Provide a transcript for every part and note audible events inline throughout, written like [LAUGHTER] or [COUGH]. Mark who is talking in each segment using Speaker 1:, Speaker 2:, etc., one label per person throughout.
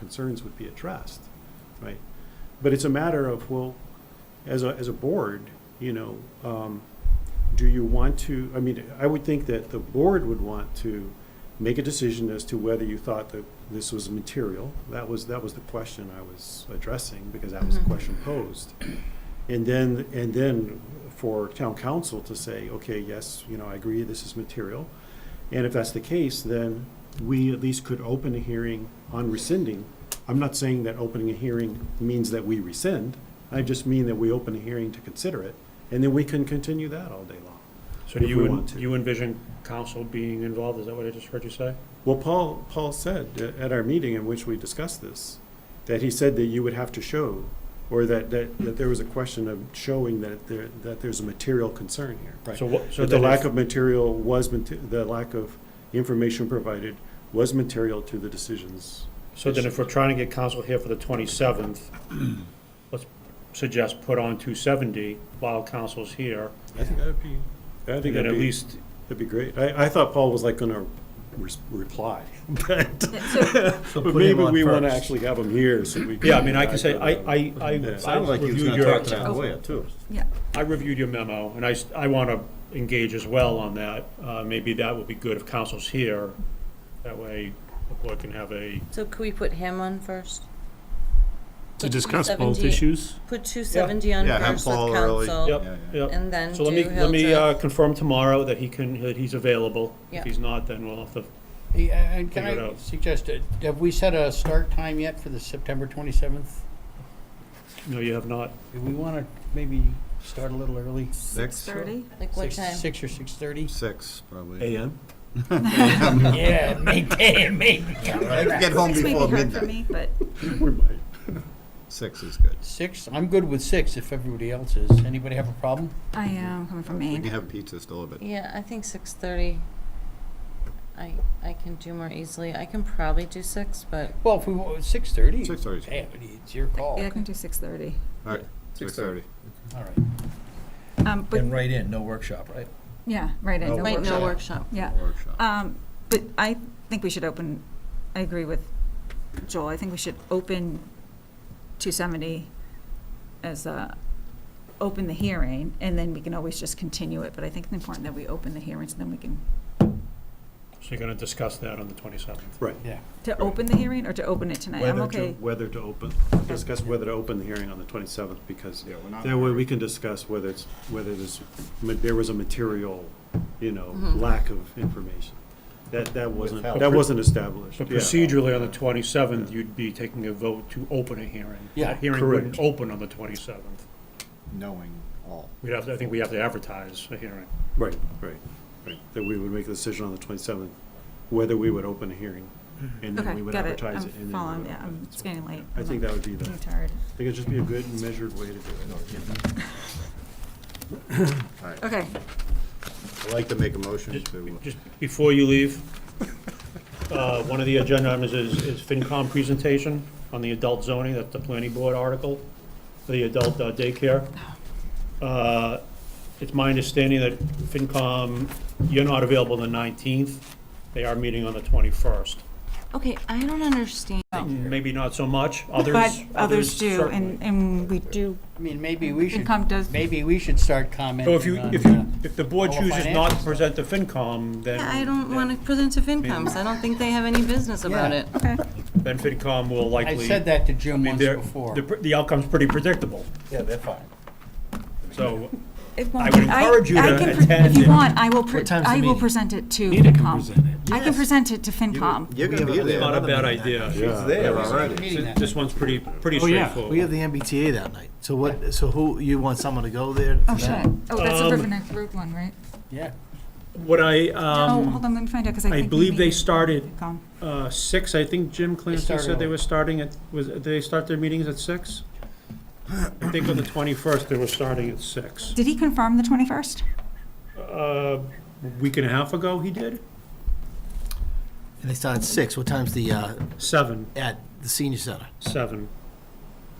Speaker 1: concerns would be addressed, right? But it's a matter of, well, as a, as a board, you know, um, do you want to, I mean, I would think that the board would want to make a decision as to whether you thought that this was material. That was, that was the question I was addressing, because that was the
Speaker 2: Mhm.
Speaker 1: question posed. And then, and then for town council to say, okay, yes, you know, I agree, this is material. And if that's the case, then we at least could open a hearing on rescinding. I'm not saying that opening a hearing means that we rescind. I just mean that we open a hearing to consider it, and then we can continue that all day long.
Speaker 3: So do
Speaker 1: if
Speaker 3: you,
Speaker 1: we
Speaker 3: en-
Speaker 1: want to.
Speaker 3: do you envision council being involved, is that what I just heard you say?
Speaker 1: Well, Paul, Paul said uh, at our meeting in which we discussed this, that he said that you would have to show, or that, that, that there was a question of showing that there, that there's a material concern here.
Speaker 3: So what, so
Speaker 1: That the
Speaker 3: then
Speaker 1: lack
Speaker 3: if,
Speaker 1: of material was, mate- the lack of information provided was material to the decisions.
Speaker 3: so then if we're trying to get council here for
Speaker 1: [CLEARS THROAT]
Speaker 3: the twenty-seventh, let's suggest put on two seventy while council's here,
Speaker 1: I think that'd be, I think
Speaker 3: and then
Speaker 1: that'd be,
Speaker 3: at least,
Speaker 1: that'd be great. I, I thought Paul was like gonna res- reply, [LAUGHS] but
Speaker 2: So,
Speaker 4: So
Speaker 1: but
Speaker 4: put him
Speaker 1: maybe
Speaker 4: on
Speaker 1: we wanna
Speaker 4: first.
Speaker 1: actually have him here so we.
Speaker 3: yeah, I mean, I can
Speaker 1: can
Speaker 3: say, I, I, I.
Speaker 1: It
Speaker 4: Sounded
Speaker 3: I
Speaker 4: like he was
Speaker 3: reviewed
Speaker 4: gonna
Speaker 3: your-
Speaker 4: talk to that lawyer too.
Speaker 2: yeah,
Speaker 3: I reviewed your memo, and I, s- I want to engage as well on that. Uh, Maybe that would be good if council's here. That way, the board can have a,
Speaker 5: So could we put him on first?
Speaker 6: To
Speaker 5: Put
Speaker 6: discuss both
Speaker 5: 270
Speaker 6: issues?
Speaker 5: Put two seventy on
Speaker 4: Yeah, have
Speaker 5: first with
Speaker 4: Paul early.
Speaker 5: council,
Speaker 3: Yep.
Speaker 4: Yeah, yeah.
Speaker 3: yep.
Speaker 5: and then do
Speaker 3: So let me, let me uh,
Speaker 5: Hildreth.
Speaker 3: confirm tomorrow that he can, that he's available.
Speaker 5: Yeah.
Speaker 3: If he's not, then we'll have to,
Speaker 7: Hey, uh, and can
Speaker 3: Figure it
Speaker 7: I
Speaker 3: out.
Speaker 7: suggest, uh, have we set a start time yet for the September 27th?
Speaker 3: no, you have not.
Speaker 7: Do we want to maybe start a little early?
Speaker 4: Six?
Speaker 2: thirty?
Speaker 5: Like what
Speaker 7: Six-
Speaker 5: time?
Speaker 7: Six or 6:30?
Speaker 4: Six, probably.
Speaker 1: AM?
Speaker 7: [LAUGHS]
Speaker 2: [LAUGHS]
Speaker 7: Yeah, maintain, maintain.
Speaker 4: Get home
Speaker 2: Six may
Speaker 4: before
Speaker 2: be hard for
Speaker 4: midnight.
Speaker 2: me, but
Speaker 1: We might.
Speaker 4: Six is good.
Speaker 7: Six, I'm good with six if everybody else is. Anybody have a problem?
Speaker 2: I am coming from
Speaker 4: We can
Speaker 2: Maine.
Speaker 4: have pizza still a bit.
Speaker 5: Yeah, I think six thirty. I, I can do more easily. I can probably do six, but
Speaker 7: Well, if we, wa- 6:30?
Speaker 4: Six thirty is
Speaker 7: Hey, it's your call.
Speaker 2: Yeah, I can do six thirty.
Speaker 4: All right, six thirty.
Speaker 7: All right.
Speaker 2: Um, but,
Speaker 4: right in, no workshop, right?
Speaker 2: yeah, right, I
Speaker 4: No
Speaker 2: know.
Speaker 5: right
Speaker 2: workshop.
Speaker 5: now workshop.
Speaker 2: Yeah.
Speaker 4: Workshop.
Speaker 2: Um, but I think we should open, I agree with Joel, I think we should open two seventy as a, open the hearing, and then we can always just continue it, but I think it's important that we open the hearing, so then we can,
Speaker 3: So you're going to discuss that on the 27th.
Speaker 2: to open the hearing or to open it tonight, I'm
Speaker 1: Whether to,
Speaker 2: okay.
Speaker 1: whether to open, discuss whether to open the hearing on the 27th, because
Speaker 4: Yeah, we're not.
Speaker 1: that way we can discuss whether it's, whether there's, ma- there was a material, you know,
Speaker 2: Mm-hmm.
Speaker 5: Mhm.
Speaker 1: lack of information. That, that wasn't,
Speaker 4: Withheld.
Speaker 1: that wasn't established.
Speaker 3: So
Speaker 1: yeah.
Speaker 3: procedurally, on the 27th, you'd be taking a vote to open a hearing.
Speaker 7: Yeah.
Speaker 3: The Hearing
Speaker 1: Correct.
Speaker 3: wouldn't open on the 27th.
Speaker 4: Knowing all.
Speaker 3: We'd have, to- I think we have to advertise a hearing.
Speaker 1: Right, right, right. That we would make a decision on the 27th, whether we would open a hearing, and then
Speaker 2: Okay,
Speaker 1: we would
Speaker 2: got it,
Speaker 1: advertise
Speaker 2: I'm
Speaker 1: it. and then we
Speaker 2: following,
Speaker 1: would
Speaker 2: yeah,
Speaker 1: open
Speaker 2: I'm-
Speaker 1: it.
Speaker 2: it's getting late.
Speaker 1: I think that would be the,
Speaker 2: I'm
Speaker 1: I
Speaker 2: tired.
Speaker 1: think it'd just be a good measured way to do it.
Speaker 4: All right,
Speaker 2: Okay,
Speaker 4: I'd like to make a motion
Speaker 3: Just-
Speaker 4: to,
Speaker 3: Just before you leave, uh, one of the agenda items is is FinCom presentation on the adult zoning, that's the planning board article, the adult uh, daycare. Uh, It's my understanding that FinCom, you're not available the 19th, they are meeting on the 21st.
Speaker 5: Okay, I don't understand.
Speaker 3: Maybe not so much, others.
Speaker 2: but others do,
Speaker 3: certainly.
Speaker 2: and, and we do,
Speaker 7: I mean, maybe we should,
Speaker 2: FinCom does,
Speaker 7: maybe we should start
Speaker 3: So
Speaker 7: commenting
Speaker 3: if you,
Speaker 7: on,
Speaker 3: if
Speaker 7: uh,
Speaker 3: you, if the board
Speaker 7: all the
Speaker 3: chooses not to
Speaker 7: financials.
Speaker 3: present the FinCom, then.
Speaker 5: I don't want to present to FinComs. I don't think they have any business about
Speaker 7: Yeah.
Speaker 5: it.
Speaker 2: okay,
Speaker 3: Then FinCom will likely.
Speaker 7: I said that to Jim
Speaker 3: I mean,
Speaker 7: once
Speaker 3: they're-
Speaker 7: before.
Speaker 3: the pr- The outcome's pretty predictable,
Speaker 7: Yeah, they're fine.
Speaker 3: so
Speaker 2: it won't.
Speaker 3: I would
Speaker 2: be-
Speaker 3: encourage you
Speaker 2: I
Speaker 3: to
Speaker 2: can pre-
Speaker 3: attend
Speaker 2: If
Speaker 3: it.
Speaker 2: you want, I will, pre-
Speaker 4: time's the
Speaker 2: I will
Speaker 4: meeting?
Speaker 2: present it to
Speaker 6: Nita can
Speaker 2: FinCom.
Speaker 6: present it.
Speaker 2: I can present it to FinCom. Oh,
Speaker 4: you're gonna be there.
Speaker 3: not a bad idea.
Speaker 1: Yeah.
Speaker 4: There
Speaker 7: Meeting
Speaker 4: already.
Speaker 7: that.
Speaker 3: This one's pretty, pretty
Speaker 6: Oh, yeah.
Speaker 3: straightforward.
Speaker 8: We have the MBTA that night. So what, so who, you want someone to go there?
Speaker 2: Oh, should I? Oh, that's a
Speaker 3: Um,
Speaker 2: River Neck Road one, right?
Speaker 7: Yeah.
Speaker 3: What I,
Speaker 2: Oh, hold
Speaker 3: um,
Speaker 2: on, let me find out, because I
Speaker 3: I
Speaker 2: think. we
Speaker 3: believe they
Speaker 2: meet-
Speaker 3: started,
Speaker 2: FinCom.
Speaker 3: uh, six, I think Jim Clancy
Speaker 7: start
Speaker 3: said they
Speaker 7: early.
Speaker 3: were starting at, was, did they start their meetings at six? I think on the twenty-first, they were starting at six.
Speaker 2: Did he confirm the 21st?
Speaker 3: Uh, a week and a half ago, he did,
Speaker 8: And they start at six. What time's the, uh,
Speaker 3: seven,
Speaker 8: at the senior center?
Speaker 3: seven.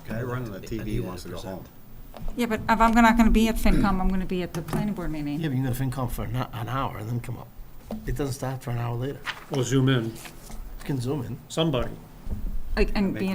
Speaker 4: Guy running the TV wants to go home.
Speaker 2: Yeah, but if I'm not going to be at FinCom, I'm going to be at the planning board meeting.
Speaker 8: Yeah, but you're gonna FinCom for an hou- an hour and then come up. It doesn't start for an hour later.
Speaker 3: We'll zoom in,
Speaker 8: You can zoom in.
Speaker 3: somebody.
Speaker 2: like, and
Speaker 4: Make
Speaker 2: be